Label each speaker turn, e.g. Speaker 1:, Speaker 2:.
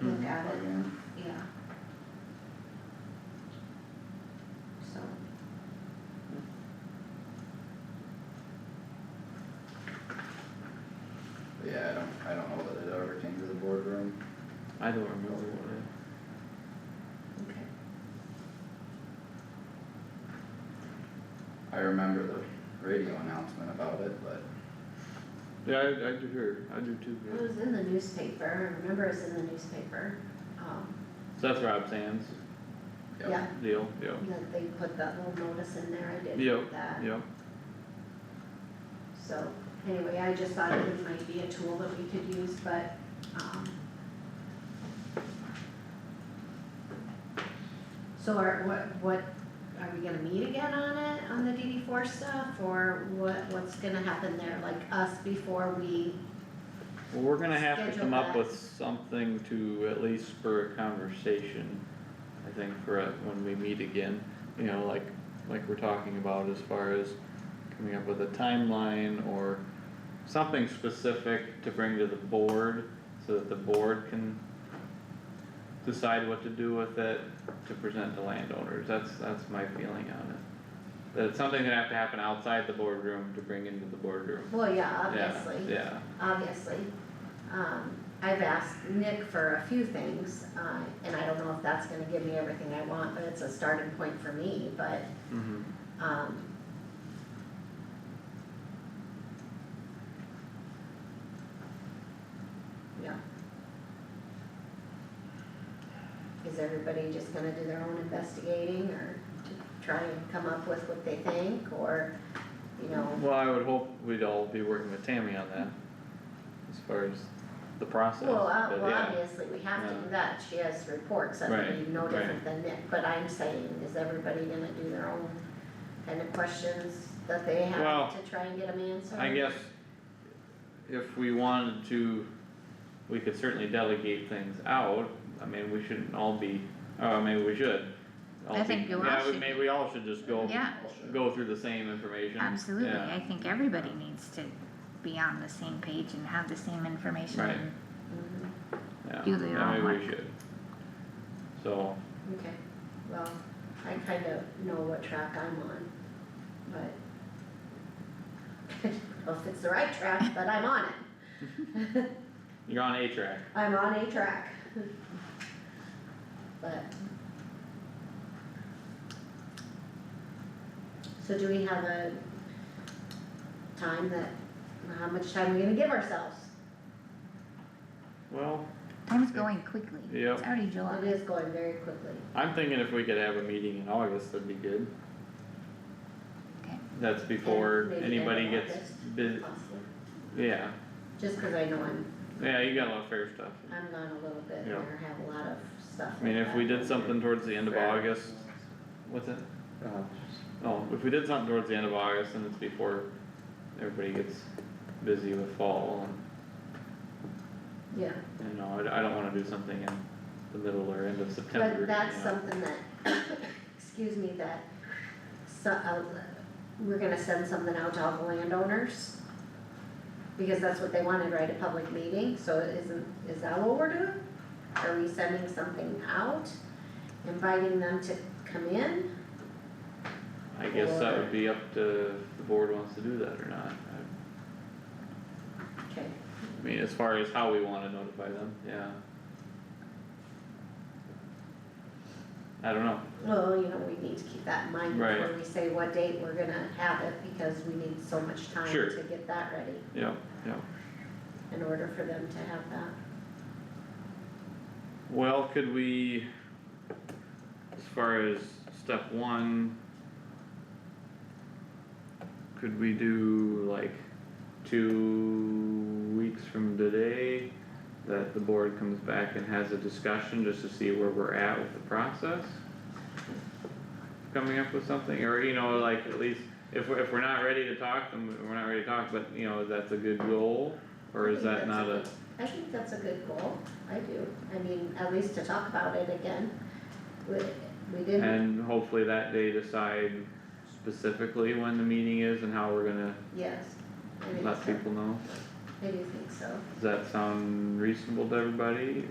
Speaker 1: Hmm.
Speaker 2: I don't remember what I.
Speaker 3: Okay.
Speaker 1: I remember the radio announcement about it, but
Speaker 2: Yeah, I, I do hear, I do too,
Speaker 3: It
Speaker 2: yeah.
Speaker 3: was in the newspaper, I remember it was in the newspaper, um,
Speaker 2: So that's Rob Sands
Speaker 3: yeah,
Speaker 1: yeah,
Speaker 2: deal, yeah,
Speaker 3: that they put that little notice in there, I did
Speaker 2: Yeah,
Speaker 3: get that.
Speaker 2: yeah.
Speaker 3: So, anyway, I just thought it might be a tool that we could use, but, um. So are, what, what, are we gonna meet again on it, on the DD four stuff, or what, what's gonna happen there, like us before we,
Speaker 2: Well, we're gonna have to
Speaker 3: Schedule
Speaker 2: come up
Speaker 3: that.
Speaker 2: with something to at least spur a conversation, I think, for uh, when we meet again. You know, like, like we're talking about as far as coming up with a timeline or something specific to bring to the board, so that the board can decide what to do with it, to present to landowners, that's, that's my feeling on it. That it's something that have to happen outside the boardroom to bring into the boardroom,
Speaker 3: well, yeah,
Speaker 2: yeah,
Speaker 3: obviously.
Speaker 2: yeah,
Speaker 3: obviously. Um, I've asked Nick for a few things, uh, and I don't know if that's gonna give me everything I want, but it's a starting point for me, but,
Speaker 2: mhm.
Speaker 3: um. Yeah. Is everybody just gonna do their own investigating or to try and come up with what they think, or, you know,
Speaker 2: Well, I would hope we'd all be working with Tammy on that, as far as the process,
Speaker 3: Well, uh,
Speaker 2: but
Speaker 3: well,
Speaker 2: yeah.
Speaker 3: obviously, we have to
Speaker 2: Yeah.
Speaker 3: do that, she has reports, that would
Speaker 2: Right,
Speaker 3: be no
Speaker 2: right.
Speaker 3: different than Nick, but I'm saying, is everybody gonna do their own kind of questions that they
Speaker 2: Well,
Speaker 3: have to try and get them answered?
Speaker 2: I guess if we wanted to, we could certainly delegate things out, I mean, we shouldn't all be, oh, maybe we should. all
Speaker 4: I
Speaker 2: be-
Speaker 4: think we all
Speaker 2: Yeah, we-
Speaker 4: should.
Speaker 2: maybe we all should just go,
Speaker 4: Yeah,
Speaker 2: go through the same information,
Speaker 4: absolutely,
Speaker 2: yeah,
Speaker 4: I think everybody needs to be on the same page and have the same information.
Speaker 2: Right.
Speaker 4: and
Speaker 3: Mhm,
Speaker 2: yeah,
Speaker 4: do their
Speaker 2: yeah,
Speaker 4: own
Speaker 2: maybe we
Speaker 4: work.
Speaker 2: should. So,
Speaker 3: Okay, well, I kind of know what track I'm on, but. I don't know if it's the right track, but I'm on it.
Speaker 2: you're on A track,
Speaker 3: I'm on a track. But. So do we have a time that, how much time are we gonna give ourselves?
Speaker 2: well,
Speaker 4: Time's going quickly,
Speaker 2: Yep.
Speaker 4: it's already July.
Speaker 3: It is going very quickly.
Speaker 2: I'm thinking if we could have a meeting in August, that'd be good.
Speaker 4: Okay.
Speaker 2: That's before
Speaker 3: Maybe
Speaker 2: anybody
Speaker 3: end of
Speaker 2: gets
Speaker 3: August.
Speaker 2: busy,
Speaker 3: Possibly.
Speaker 2: yeah,
Speaker 3: Just cause I know I'm,
Speaker 2: yeah, you got a lot of fair stuff.
Speaker 3: I'm gone a little bit
Speaker 2: Yeah.
Speaker 3: or have a lot of stuff
Speaker 2: I mean,
Speaker 3: like
Speaker 2: if we
Speaker 3: that.
Speaker 2: did something towards the end of
Speaker 1: Fair.
Speaker 2: August, what's it?
Speaker 1: uh,
Speaker 2: Oh, if we did something towards the end of August, then it's before everybody gets busy with fall
Speaker 3: Yeah,
Speaker 2: and, you know, I, I don't wanna do something in the middle or end of September,
Speaker 3: but that's
Speaker 2: you know.
Speaker 3: something that, excuse me, that, so, uh, we're gonna send something out to all the landowners. Because that's what they wanted, right, a public meeting, so isn't, is that what we're doing? Are we sending something out, inviting them to come in?
Speaker 2: I guess that
Speaker 3: or-
Speaker 2: would be up to if the board wants to do that or not, I,
Speaker 3: Okay,
Speaker 2: I mean, as far as how we wanna notify them, yeah. I don't know,
Speaker 3: well, you know, we need to keep that in mind
Speaker 2: Right.
Speaker 3: before we say what date we're gonna have it, because we need so much time
Speaker 2: Sure.
Speaker 3: to get that ready
Speaker 2: yeah, yeah.
Speaker 3: in order for them to have that.
Speaker 2: Well, could we, as far as step one, could we do like two weeks from today? That the board comes back and has a discussion just to see where we're at with the process? Coming up with something, or you know, like at least, if we're, if we're not ready to talk, then we're not ready to talk, but you know, that's a good goal? Or
Speaker 3: I
Speaker 2: is
Speaker 3: think
Speaker 2: that
Speaker 3: that's
Speaker 2: not a?
Speaker 3: good- I think that's a good goal, I do, I mean, at least to talk about it again, we, we didn't,
Speaker 2: And hopefully that day decide specifically when the meeting is and how we're gonna
Speaker 3: yes, I think
Speaker 2: let
Speaker 3: so,
Speaker 2: people know.
Speaker 3: I do think so,
Speaker 2: Does that sound reasonable to everybody?